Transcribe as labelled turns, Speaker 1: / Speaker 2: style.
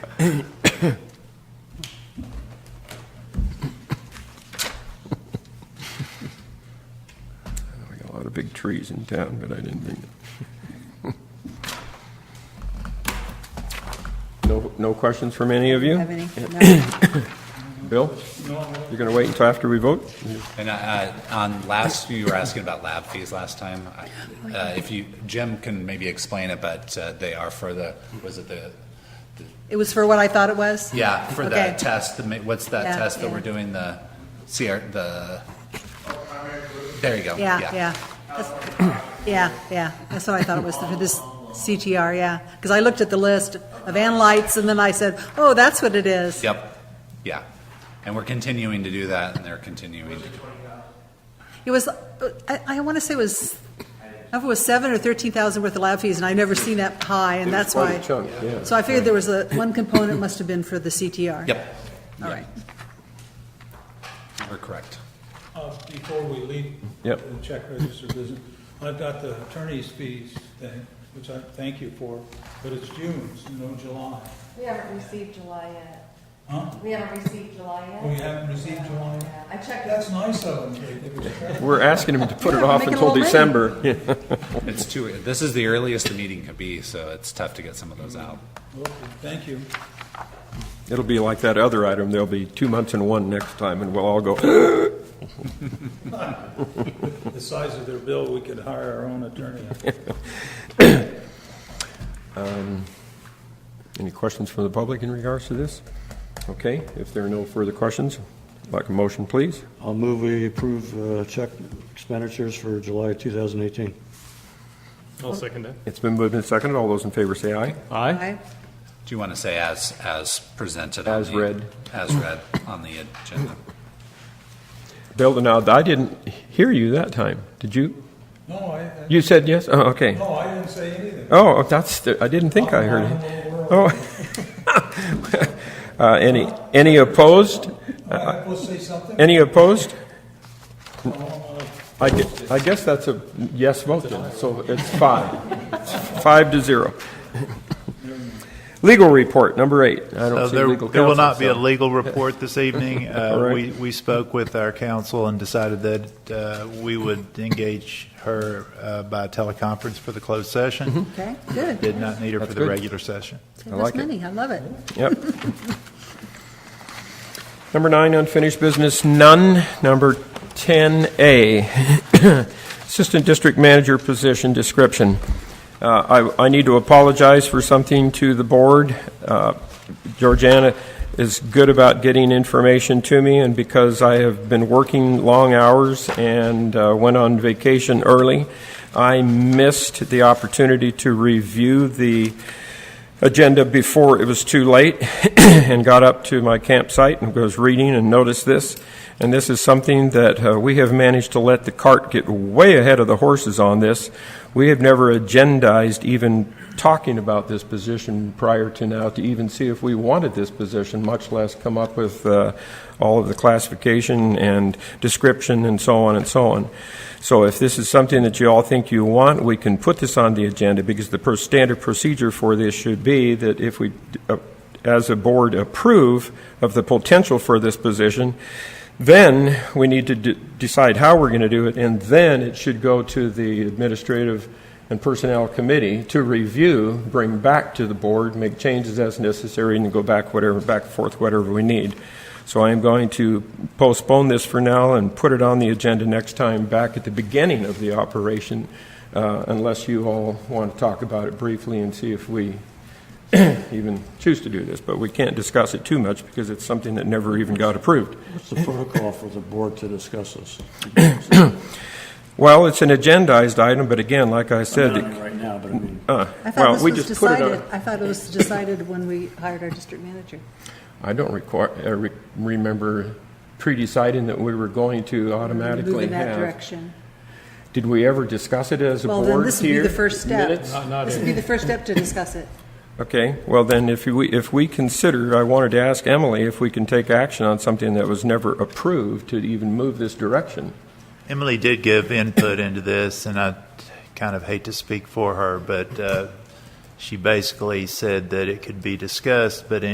Speaker 1: We got a lot of big trees in town, but I didn't think. No, no questions from any of you?
Speaker 2: Have any? No.
Speaker 1: Bill? You're going to wait until after we vote?
Speaker 3: And uh, on last, you were asking about lab fees last time. I- uh, If you, Jim can maybe explain it, but uh, they are for the, was it the,
Speaker 2: It was for what I thought it was?
Speaker 3: yeah, for the
Speaker 2: Okay.
Speaker 3: test, the ma- what's that
Speaker 2: Yeah,
Speaker 3: test that
Speaker 2: yeah.
Speaker 3: we're doing, the CR, the, there you go.
Speaker 2: Yeah, yeah. That's- Yeah, yeah, that's what I thought it was, for this CTR, yeah. Because I looked at the list of analytes, and then I said, oh, that's what it is.
Speaker 3: Yep, yeah. And we're continuing to do that, and they're continuing to
Speaker 2: It was, uh, I, I want to say it was, I don't know if it was seven or 13,000 worth of lab fees, and I've never seen that high, and that's
Speaker 1: quite a
Speaker 2: why.
Speaker 1: chunk, yeah.
Speaker 2: So I figured there was a, one component must have been for the CTR.
Speaker 3: Yep,
Speaker 2: All right.
Speaker 3: we're correct.
Speaker 4: Uh, Before we leave.
Speaker 1: Yep.
Speaker 4: The check register business, I've got the attorney's fees thing, which I thank you for, but it's June, it's no July.
Speaker 5: We haven't received July yet.
Speaker 4: Huh?
Speaker 5: We haven't received July yet.
Speaker 4: We Oh, haven't received July yet?
Speaker 5: Yeah, I checked.
Speaker 4: That's nice of them, Kate, it was fair.
Speaker 1: We're asking him to put it off
Speaker 2: Make it a
Speaker 1: until
Speaker 2: little
Speaker 1: December. Yeah.
Speaker 3: It's too, this is the earliest the meeting could be, so it's tough to get some of those out.
Speaker 4: Okay, Thank you.
Speaker 1: It'll be like that other item, there'll be two months and one next time, and we'll all go,
Speaker 4: The size of their bill, we could hire our own attorney.
Speaker 1: any questions from the public in regards to this? Okay, if there are no further questions, I'd like a motion, please.
Speaker 6: I'll move we approve uh, check expenditures for July 2018.
Speaker 7: I'll second that.
Speaker 1: It's been moved and seconded, all those in favor say aye.
Speaker 7: Aye.
Speaker 2: Aye.
Speaker 3: Do you want to say as, as presented? on
Speaker 1: As
Speaker 3: the-
Speaker 1: read.
Speaker 3: As read on the agenda.
Speaker 1: Bill, now, I didn't hear you that time, did you?
Speaker 4: No, I, I-
Speaker 1: You said yes? Oh, okay.
Speaker 4: no, I didn't say anything.
Speaker 1: Oh, that's, the- I didn't think I heard it. Oh. Uh, Any, any opposed?
Speaker 4: Am
Speaker 1: Oh,
Speaker 4: I supposed to say something?
Speaker 1: Any opposed?
Speaker 4: No, I'm not.
Speaker 1: I gue- I guess that's a yes vote then, so it's five. Five to zero. Legal report, number eight. I
Speaker 8: Uh,
Speaker 1: don't see
Speaker 8: There
Speaker 1: legal counsel.
Speaker 8: there will not be a
Speaker 1: so-
Speaker 8: legal report this evening. Uh,
Speaker 1: All right.
Speaker 8: We we spoke with our counsel and decided that uh, we would engage her uh, by teleconference for the closed session.
Speaker 2: Okay, good.
Speaker 8: Did not need her for
Speaker 1: That's
Speaker 8: the
Speaker 1: Mm-hmm. good.
Speaker 8: regular session.
Speaker 2: Save
Speaker 1: I
Speaker 2: us
Speaker 1: like it.
Speaker 2: money, I love it.
Speaker 1: Yep. Number nine, unfinished business, none. Number 10A, Assistant District Manager position description. Uh, I I need to apologize for something to the board. Uh, Georgiana is good about getting information to me, and because I have been working long hours and uh, went on vacation early, I missed the opportunity to review the agenda before it was too late and got up to my campsite and was reading and noticed this. And this is something that uh, we have managed to let the cart get way ahead of the horses on this. We have never agendized even talking about this position prior to now to even see if we wanted this position, much less come up with uh, all of the classification and description and so on and so on. So if this is something that you all think you want, we can put this on the agenda because the per- standard procedure for this should be that if we, uh, as a board, approve of the potential for this position, then we need to de- decide how we're going to do it, and then it should go to the administrative and personnel committee to review, bring back to the board, make changes as necessary, and go back whatever, back and forth whatever we need. So I am going to postpone this for now and put it on the agenda next time, back at the beginning of the operation, uh, unless you all want to talk about it briefly and see if we even choose to do this. But we can't discuss it too much because it's something that never even got approved.
Speaker 6: What's the protocol for the board to discuss this?
Speaker 1: Well, it's an agendized item, but again, like I said, uh,
Speaker 6: Not right now, but I mean,
Speaker 2: I
Speaker 1: Well,
Speaker 2: thought this
Speaker 1: we
Speaker 2: was
Speaker 1: just put it on-
Speaker 2: decided, I thought it was decided when we hired our district manager.
Speaker 1: I don't require, uh, re- remember pre-deciding that we were going to
Speaker 2: Move
Speaker 1: automatically
Speaker 2: in that
Speaker 1: have.
Speaker 2: direction.
Speaker 1: Did we ever discuss it as a
Speaker 2: Well,
Speaker 1: board here?
Speaker 2: then this would be the first step.
Speaker 1: Minutes?
Speaker 2: This would be the first step to discuss it.
Speaker 1: Okay, well then, if we, if we consider, I wanted to ask Emily if we can take action on something that was never approved to even move this direction.
Speaker 8: Emily did give input into this, and I kind of hate to speak for her, but uh, she basically said that it could be discussed, but in